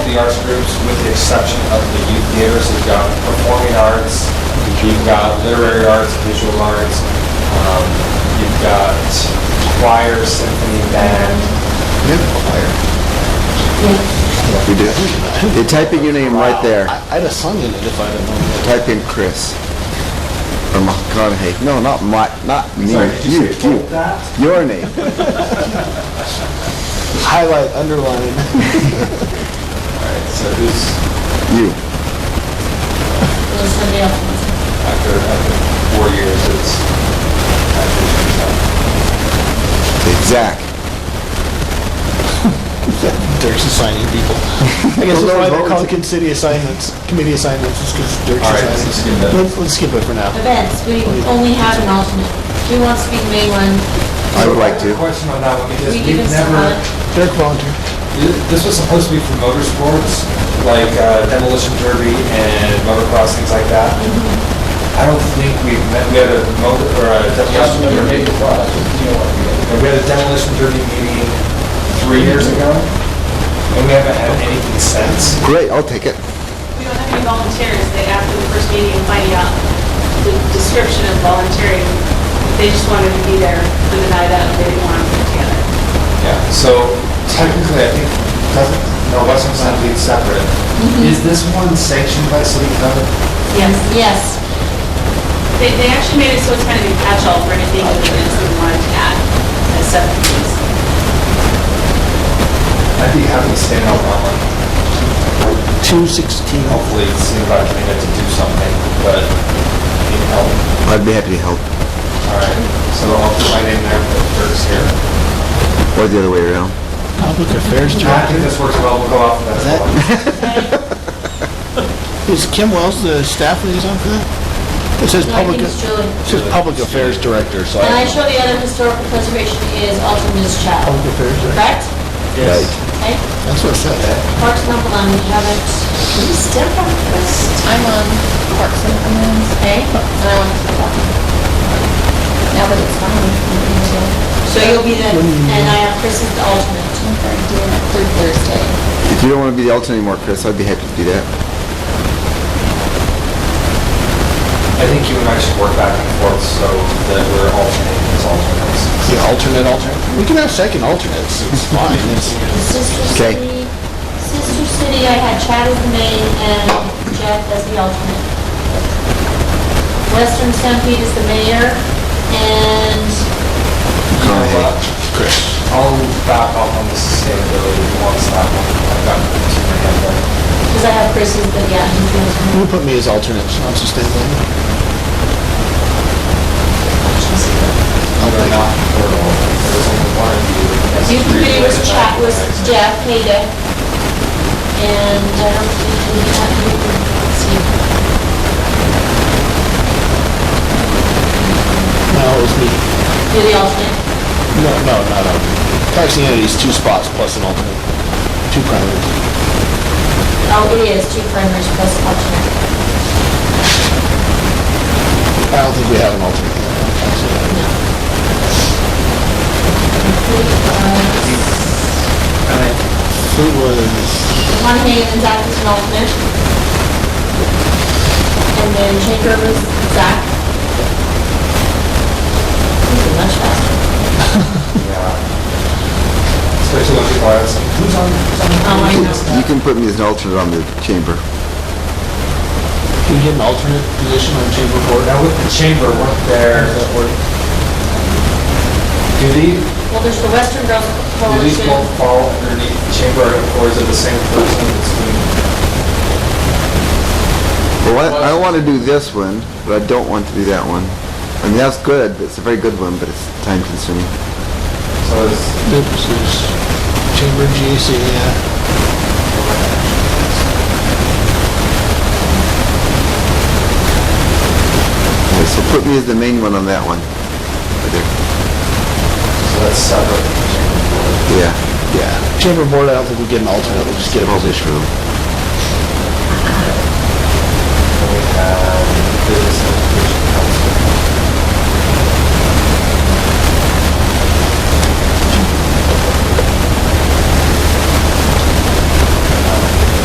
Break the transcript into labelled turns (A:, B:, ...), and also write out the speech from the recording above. A: the arts groups, with the exception of the youth theaters. We've got performing arts, you've got literary arts, visual arts, um, you've got choir, symphony, band.
B: We do. You're typing your name right there.
C: I- I'd have sung in it if I'd have known.
B: Type in Chris. Or McConaughey. No, not my, not me.
A: Sorry, did
B: You,
A: you say
B: you.
A: that?
B: Your name.
C: Highlight, underline.
A: All right, so who's
B: You.
D: It was somebody else.
A: after, after four years, it's, after,
B: Okay, Zach.
C: Dirk's assigning people. I guess that's
B: Well,
C: why
B: those
C: they're
B: votes-
C: called committee assignments, committee assignments, is because Dirk's
A: All right, let's just skip
C: assigning.
A: that.
C: Let's, let's skip it for now.
D: Events,
A: Oh,
D: we only have an alternate. Who wants to be the main one?
B: I would like to.
A: Question on that one, because
D: We give
A: we've
D: us
A: never,
D: someone.
C: Dirk volunteered.
A: This was supposed to be for motorsports, like uh, demolition derby and motocross, things like that. I don't think we've met, we had a motor, or a demolition derby. We had a demolition derby meeting three years ago, and we haven't had anything since.
B: Great, I'll take it.
E: We don't have any volunteers. They, after the first meeting, finding out the description of volunteering, they just wanted to be there for the night out. They didn't want to put together.
A: Yeah, so technically, I think, doesn't, no, Western Sign League separate. Is this one sanctioned by city code?
D: Yes, yes.
E: They, they actually made it so it's kind of a catch-all for anything that they didn't want to add as subcommittees.
A: I'd be happy to stand on that one.
C: Two sixteen.
A: hopefully see if I can get to do something, but need help.
B: I'd be happy to help.
A: All right, so I'll put my name there for Dirk's here.
B: Or the other way around.
C: Public affairs
A: I think this works well, we'll go off of that.
C: Is Kim Wells the staff liaison for that? It says
D: No, I
C: public,
D: think
C: it
D: it's Julie.
C: says public affairs director,
A: Oh.
C: so I.
D: And I
C: don't know.
D: show the other historical preservation is also Ms. Chow.
A: Oh.
C: Public affairs director,
D: Correct?
A: Yes.
D: Okay.
C: that's what it said.
D: Parks and Upland, we haven't.
F: I'm on Parks and Commons,
D: Okay.
F: and I want to do that. Now that it's fine, we can do it.
D: So you'll be the, and I have Chris as the alternate.
F: I'm sorry, do it through Thursday.
B: If you don't want to be the alternate anymore, Chris, I'd be happy to do that.
A: I think you and I should work back and forth so that we're alternating as alternates.
C: The alternate alternate. We can have second alternates, it's fine. It's-
D: Sister
B: Okay.
D: City, Sister City, I had Chad as the main and Jeff as the alternate. Western Stampede is the mayor and
A: You know
B: Okay.
A: what? uh, I'll back off on the sustainability once that one, I've got too many of them.
D: Because I have Chris as the, yeah, he's the alternate.
C: You put me as alternate, so I'm sustainable.
A: They're not portable, there's only one of you. that's
D: Youth committee was
A: related
D: Chad, was
A: back.
D: Jeff, Hayda. And I don't think we have, let's see.
C: No, it was me.
D: You're the alternate.
C: No, no, not alternate. Parks and Entities, two spots plus an alternate, two primaries.
D: Oh, it is two primaries plus alternate.
C: I don't think we have an alternate. on Parks and Entities.
D: Uh,
C: Uh, Who was,
D: Monahan and Zach is an alternate. And then Shaker was Zach. He's a much faster.
A: Yeah. Especially when people are asking, who's on, who's on?
D: Um, I know.
B: You can put me as an alternate on the chamber.
C: can we get an alternate position on chamber board?
A: Now with the chamber, weren't there, do these,
D: Well, there's the Western Girls
A: do these
D: Coalition.
A: both fall underneath the chamber or is it the same person that's doing?
B: Well, I, I want to do this one, but I don't want to do that one. I mean, that's good. It's a very good one, but it's time consuming.
A: So is,
C: Nope, this is chamber GAC, yeah.
B: Okay, so put me as the main one on that one. Right there.
A: so that's separate from the chamber board.
B: Yeah.
C: Yeah. Chamber board, I don't think we get an alternate, we'll just get a
B: All this
C: position.
B: room.
A: And we have business education